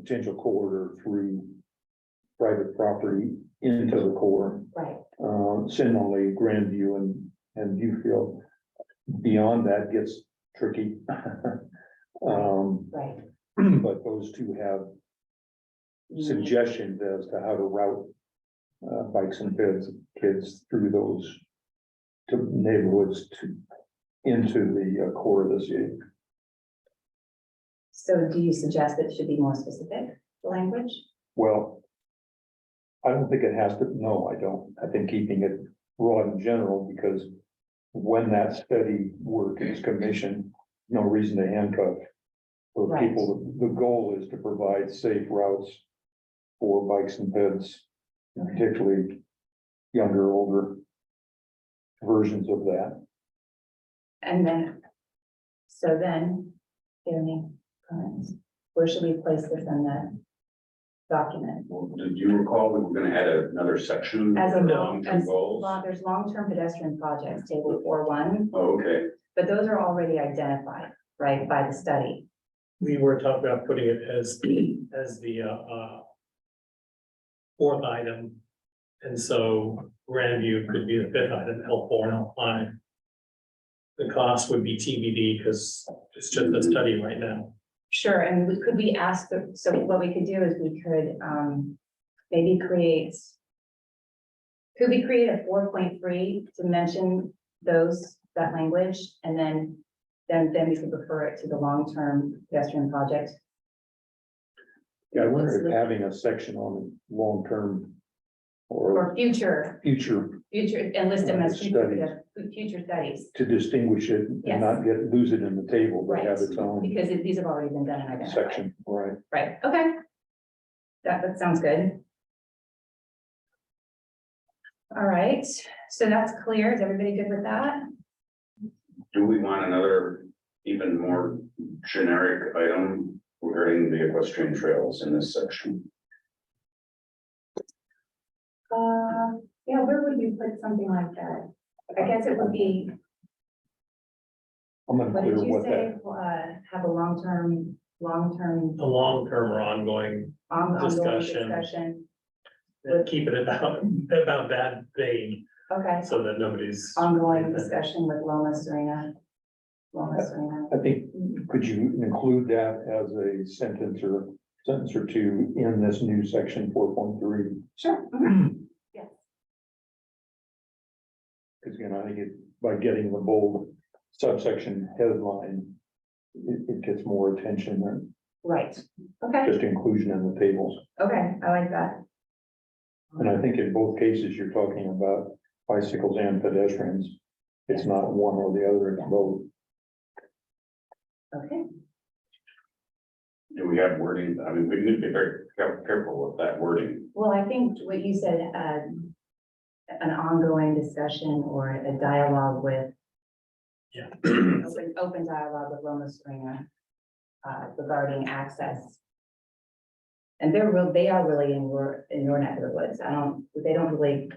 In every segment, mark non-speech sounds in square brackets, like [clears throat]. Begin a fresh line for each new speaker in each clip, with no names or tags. potential corridor through private property into the core.
Right,
Uh, similarly, Grandview and, and Viewfield. Beyond that gets tricky. [laughs] Um, [clears throat]
right.
but those two have
Mm. Mm-hmm.
suggestions as to how to route uh, bikes and kids, kids through those to neighborhoods to, into the uh, core of the city.
So do you suggest that it should be more specific, the language?
Well, I don't think it has to, no, I don't. I think keeping it broad in general, because when that study work is commissioned, no reason to handcuff. For
Right.
people, the goal is to provide safe routes for bikes and peds, particularly younger, older versions of that.
And then, so then, do you have any comments? Where should we place this in the document?
Well, Did you recall we were gonna add another section?
As a,
for
long-
long-term
as,
goals?
long- there's long-term pedestrian projects, table four one,
Oh, okay,
but those are already identified, right, by the study.
We were talking about putting it as, as the, uh, uh. Fourth item, and so Grandview could be the fifth item, L four and L five. The cost would be TBD, because it's just a study right now.
Sure, and we, could we ask the, so what we could do is we could, um, maybe create. Could we create a four point three to mention those, that language, and then, then, then we could refer it to the long-term pedestrian project?
Yeah, I wonder if having a section on long-term or
Or future,
future
future, and list them as future,
Studies.
future studies,
to distinguish it
Yes.
and not get, lose it in the table, but have
Right.
its own
because it- these have already been done and identified.
section, right?
Right, okay. That, that sounds good. All right, so that's clear. Is everybody good with that?
do we want another even more generic item regarding the equestrian trails in this section?
Uh, yeah, where would you put something like that? I guess it would be,
I'm
what did
unclear
you
what
say,
that,
uh, have a long-term, long-term
The long term or ongoing,
on- ongoing
Discussion.
discussion?
keep it about, about that vein,
Okay,
so that nobody's.
ongoing discussion with Loma Serena.
Uh,
Loma Serena.
I think,
Mm.
could you include that as a sentence or sentence or two in this new section four point three?
Sure. Yes.
Because again, I think it, by getting the bold subsection headline, it, it gets more attention than
Right, okay,
just inclusion in the tables.
okay, I like that.
And I think in both cases, you're talking about bicycles and pedestrians. It's not one or the other, it's both.
Okay,
Do we have wording? I mean, we need to be very care- careful with that wording. [clears throat]
well, I think what you said, um, an ongoing discussion or a dialogue with open, open dialogue with Loma Serena uh, regarding access. And they're real, they are really in your, in your neck of the woods. I don't, they don't really,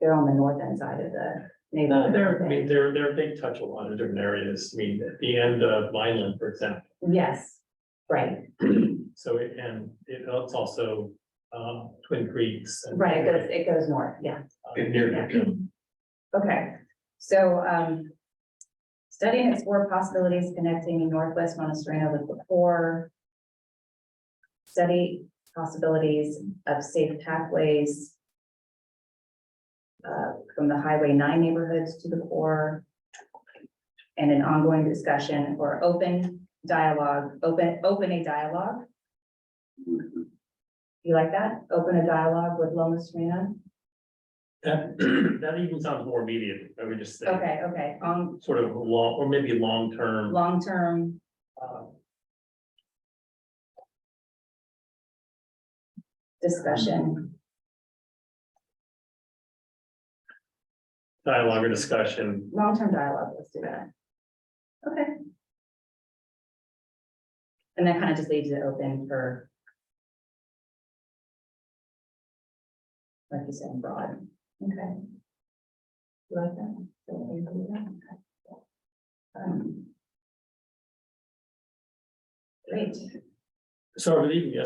they're on the north end side of the
No,
neighborhood.
they're, I mean, they're, they're, they touch a lot of different areas, I mean, at the end of Vineland, for example.
Yes, right,
So it, and it- it's also, um, Twin Creeks. and-
right. It goes, it goes north, yeah.
Uh,
Okay, so, um, study and explore possibilities connecting Northwest Montessorino with the core. Study possibilities of safe pathways. uh, from the Highway nine neighborhoods to the core. And an ongoing discussion or open dialogue, open, open a dialogue. You like that? Open a dialogue with Loma Serena?
That, that [clears throat] even sounds more immediate, I would just say,
Okay, okay, um,
sort of long, or maybe long-term,
long-term
uh,
discussion.
dialogue or discussion.
long-term dialogue, let's do that. Okay. And that kind of just leaves it open for. Like you said, broad, okay. You like that? Don't you agree with that? Um, Great.
So I believe, yes,